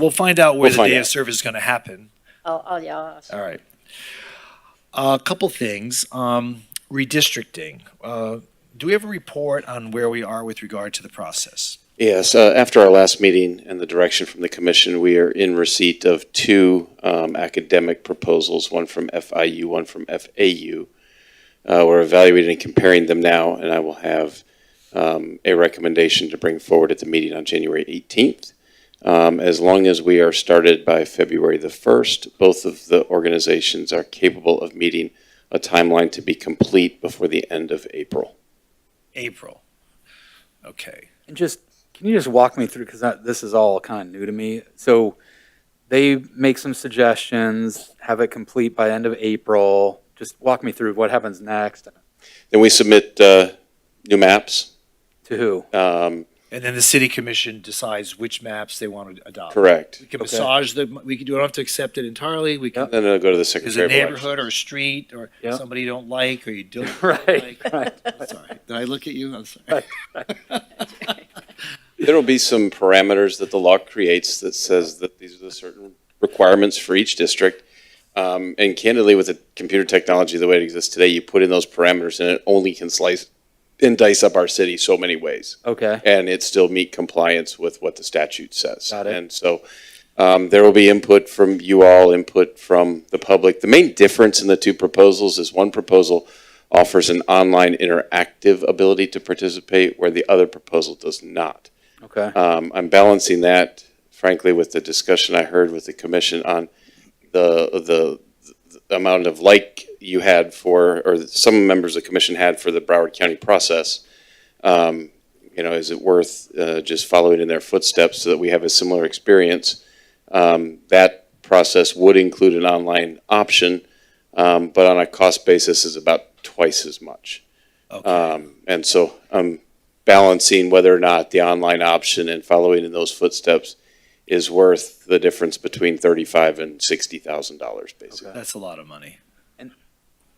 We'll find out where We'll the find day out. of service is going to happen. Oh, oh, yeah. I'll- All right. A couple things. Um, redistricting. Uh, do we have a report on where we are with regard to the process? Yes, uh, after our last meeting and the direction from the commission, we are in receipt of two um, academic proposals, one from FIU, one from FAU. Uh, We're evaluating and comparing them now, and I will have um, a recommendation to bring forward at the meeting on January 18th. Um, As long as we are started by February the 1st, both of the organizations are capable of meeting a timeline to be complete before the end of April. April. Okay. And just, can you just walk me through, because this is all kind of new to me. So they make some suggestions, have it complete by end of April. Just walk me through what happens next, Then we submit uh, new maps. to who? um, And then the city commission decides which maps they want to adopt. Correct. We can Okay. massage the, we can, we don't have to accept it entirely. We can, Then it'll go to the there's Secretary a of Elections. neighborhood or a street or Yeah. somebody you don't like or you don't. Right, like. right. I'm Sorry. Did I look at you? I'm sorry. There will be some parameters that the law creates that says that these are the certain requirements for each district. Um, And candidly, with the computer technology, the way it exists today, you put in those parameters and it only can slice and dice up our city so many ways. Okay, and it still meet compliance with what the statute says. Got it. And so um, there will be input from you all, input from the public. The main difference in the two proposals is one proposal offers an online interactive ability to participate, where the other proposal does not. okay. Um, I'm balancing that, frankly, with the discussion I heard with the commission on the, the the amount of like you had for, or some members of the commission had for the Broward County process. Um, you know, is it worth, uh, just following in their footsteps so that we have a similar experience? Um, that process would include an online option, um, but on a cost basis is about twice as much. Okay. Um, and so I'm balancing whether or not the online option and following in those footsteps is worth the difference between thirty-five and sixty thousand dollars, basically. That's a lot of money.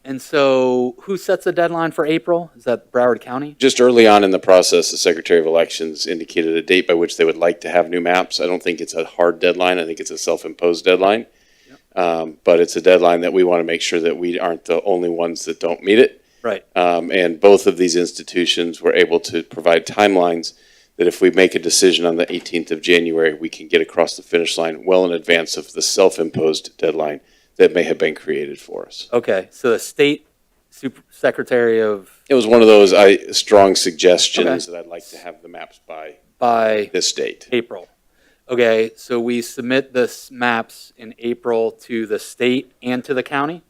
And so who sets the deadline for April? Is that Broward County? Just early on in the process, the Secretary of Elections indicated a date by which they would like to have new maps. I don't think it's a hard deadline. I think it's a self-imposed deadline. Um, but it's a deadline that we want to make sure that we aren't the only ones that don't meet it. Right. Um, and both of these institutions were able to provide timelines that if we make a decision on the 18th of January, we can get across the finish line well in advance of the self-imposed deadline that may have been created for us. Okay, so the state super secretary of, It was one of those I, strong suggestions that I'd like to have the maps by by this date. April. Okay, so we submit the s- maps in April to the state and to the county,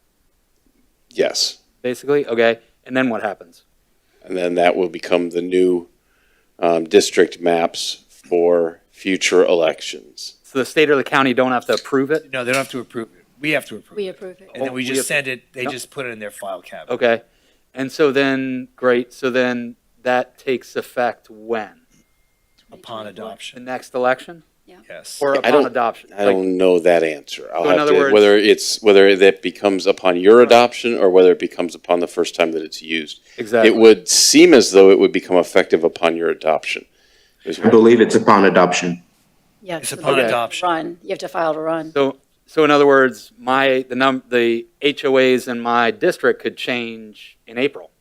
Yes. basically? Okay, and then what happens? And then that will become the new um, district maps for future elections. So the state or the county don't have to approve it? No, they don't have to approve it. We have to approve We it. approve it. And then we Oh, We just have- send it, they Yep. just put it in their file cabinet. Okay. And so then, great, so then that takes effect when? Upon The adoption, next election yes. or I upon don't- adoption? I Like, don't know that answer. I'll So in have other to, words- whether it's, whether that becomes upon your adoption or whether it becomes upon the first time that it's used. It Exactly. would seem as though it would become effective upon your adoption. is I what- believe it's upon adoption. Yeah. It's so upon you have to adoption. Run, you have to file to run. So, so in other words, my, the num, the HOAs in my district could change in April.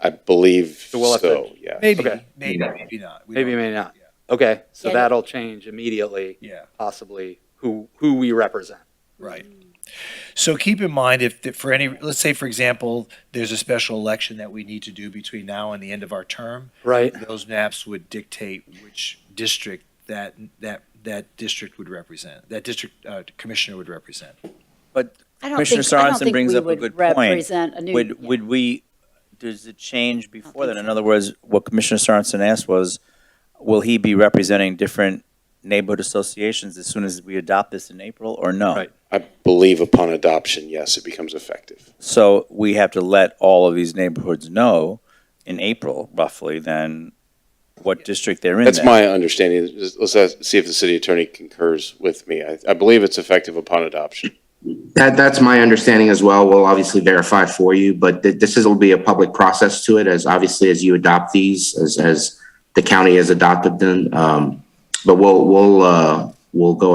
I believe So we'll have to- so, yeah. Maybe, Okay. maybe, maybe not. We Maybe, don't- maybe not. Yeah. Okay, so Yeah, no. that'll change immediately, Yeah, possibly, who, who we represent. right. So keep in mind if, if for any, let's say, for example, there's a special election that we need to do between now and the end of our term, Right. those maps would dictate which district that, that, that district would represent, that district uh, commissioner would represent. I don't Commissioner think- I don't Sorensen think brings we up a would good point. Represent a new. Would, yeah. would we, does it change before think that? In so. other words, what Commissioner Sorensen asked was, will he be representing different neighborhood associations as soon as we adopt this in April or no? Right. I believe upon adoption, yes, it becomes effective. So we have to let all of these neighborhoods know in April roughly then what district they're in. That's then. my understanding. Just- Let's ask- see if the city attorney concurs with me. I, I believe it's effective upon adoption. That, that's my understanding as well. We'll obviously verify for you, but th- this is, will be a public process to it as obviously as you adopt these, as, as the county has adopted them. Um, but we'll, we'll, uh, we'll go